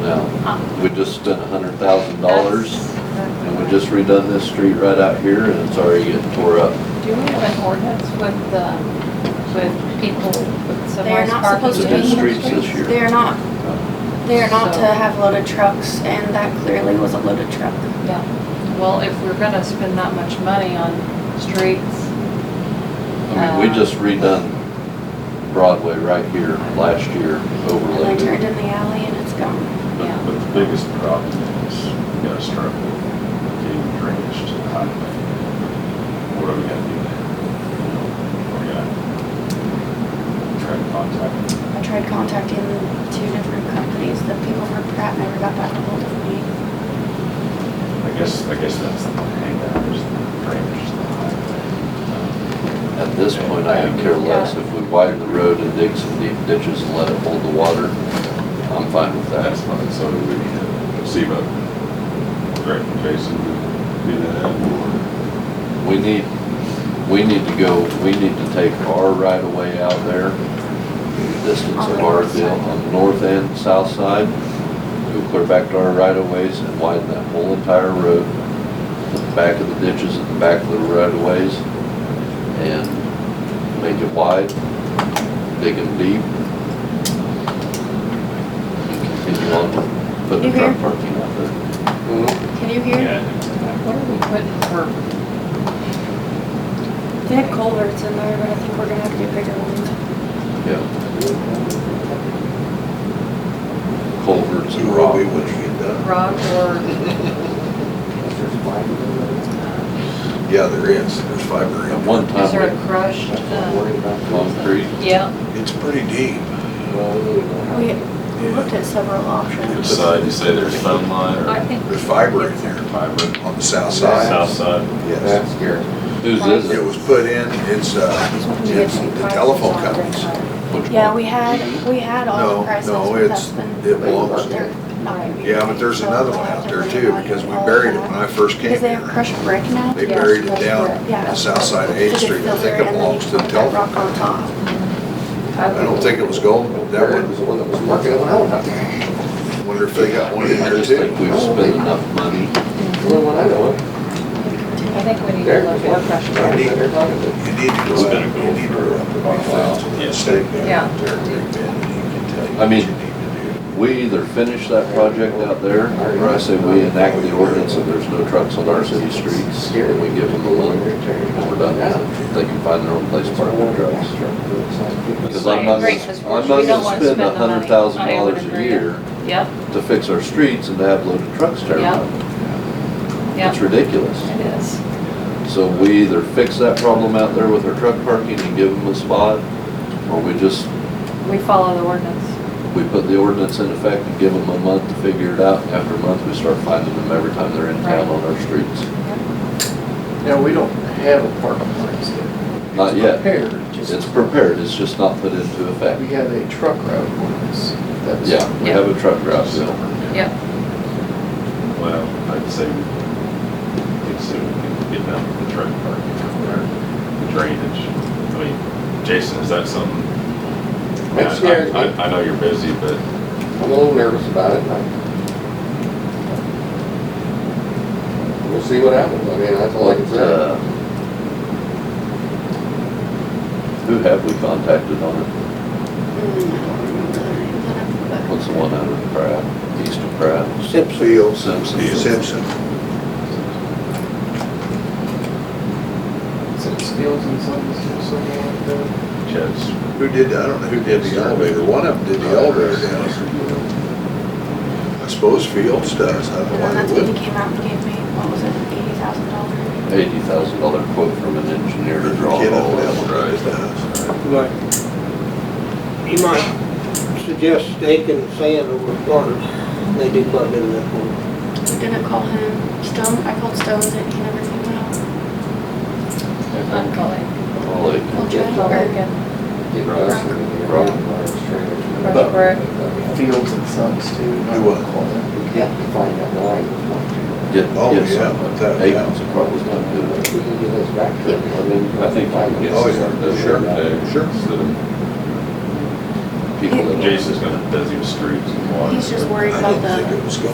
down. We just spent a hundred thousand dollars and we just redone this street right out here and it's already getting tore up. Do we have an ordinance with, uh, with people with They're submerged not parking? supposed It's to a be. new streets this year. They're not, they're not to So- have loaded trucks, and that clearly was a loaded truck. Yeah, well, if we're gonna spend that much money on streets, I mean, we just redone Broadway right here last year, And they turned overlaid. it. in the alley and it's gone. yeah. But but the biggest problem is, you gotta start with getting drainage to the highway. What are we gonna do there? You know, We're gonna try to contact them. I tried contacting two different companies, the people from Pratt never got back a hold of me. I guess, I guess that's the hangout, is the drainage to the Um, highway. At this point, I could care less if we widen the road and dig some deep ditches and let it hold the water. I'm fine with that. That's fine, so do we need to see about, Greg and Jason, do that, or We need, we need to go, we need to take our right of way out there, the distance On of the our north deal side. on the north end, south side. Go clear back to our right of ways and widen that whole entire road, the back of the ditches at the back of the right of ways. And make it wide, dig them deep. and Continue on, put the You truck here? parking out there. Can you hear? What are we putting for, They had culverts in there, but I think we're gonna have to do bigger ones. Yeah, culverts and rock. Robbie, what you done? rock or, Yeah, there is, there's fiber At in one one. is there time, a crushed, uh, concrete, yeah, It's pretty deep. We had looked at several which options. side, you say there's phone line I or think. There's fiber in there fiber? on the south South side. side? Yes. whose is It it? was put in, it's, uh, it's the telephone companies. Which Yeah, one? we had, we had all No, the prices, no, but that's it's- been. it belongs they're not gonna be Yeah, but ready, there's so another we'll one have out to there bring too, back because we all buried it that. when I first came Because they have here. crushed brick now. They Yeah, buried it crushed down brick, yeah. the south side of To Eighth just Street. I fill think there, and it then belongs to you the put that Rock telephone. on top. I don't think it was gold, but that one, one that was working on out out there. wonder if they got one in I there just too. think we've spent enough money. The only one I know of. I think we need to There. look at crushed rock. need- They're talking to- You need to It's go been a out, you goal need to for go out to Rock Falls and Yeah. stake Yeah. down there, big bend, and he can tell you I what mean- you need to do. We either finish that project out there, or I say we enact the ordinance that there's no trucks on our city streets. Here, we give them a loan, and we're done with it. They can find their own place to That's park what I their wanted to trucks. ask. Because I'm not, I agree, 'cause gonna- I'm we not don't gonna wanna spend spend the a money. hundred thousand I would dollars a agree. year Yep, to fix our streets and to have loaded trucks tear Yeah. them up. It's yep, ridiculous. it is. So we either fix that problem out there with our truck parking and give them a spot, or we just We follow the ordinance. We put the ordinance in effect and give them a month to figure it out. After a month, we start finding them every time they're in town on our streets. Now, we don't have a park place yet. Not It's yet. Prepared, It's just, prepared, it's just not put into we effect. have a truck route ordinance. That's- Yeah, we have a truck route bill. Yep, Well, I'd say we could soon get down to the truck parking or the drainage. I mean, Jason, is that something? I mean, That scares I- I- me. I know you're busy, but I'm a little nervous about it. and I- We'll see what happens. I mean, that's all I can What, uh, say. Who have we contacted on it? Mm. What's the one out of Pratt, east of Pratt? Simpsonville. Simpson. Simpson. Some steals and some, some- something like that. Chad's. Who did, I don't know who did the elevator, one of them did the elevator down. I suppose Fields does, I don't know And why that's they when he wouldn't. came out and gave me, what was it, eighty thousand dollars? Eighty thousand dollar quote from an engineer to draw Kid it up all that up. one, Right. it does. But you might suggest staking sand over corners, they do plug into that corner. We didn't call him, Stone, I called Stone, and he never came out. I'm calling. All oh, like, Well, Jed, Call or- again. Get Russ and get Rob and Myers Trainer. Rush Brook. Fields and Sons too. Do what? We can't define that line. Get, Oh, get some, yeah, that- eight yeah. thousand probably not good. We can get those back. I think you can get Oh, some. uh, yeah, sure, Sure. sure. Instead of people that. Jason's gonna designate streets and water. He's just worried about the. I didn't think it was gonna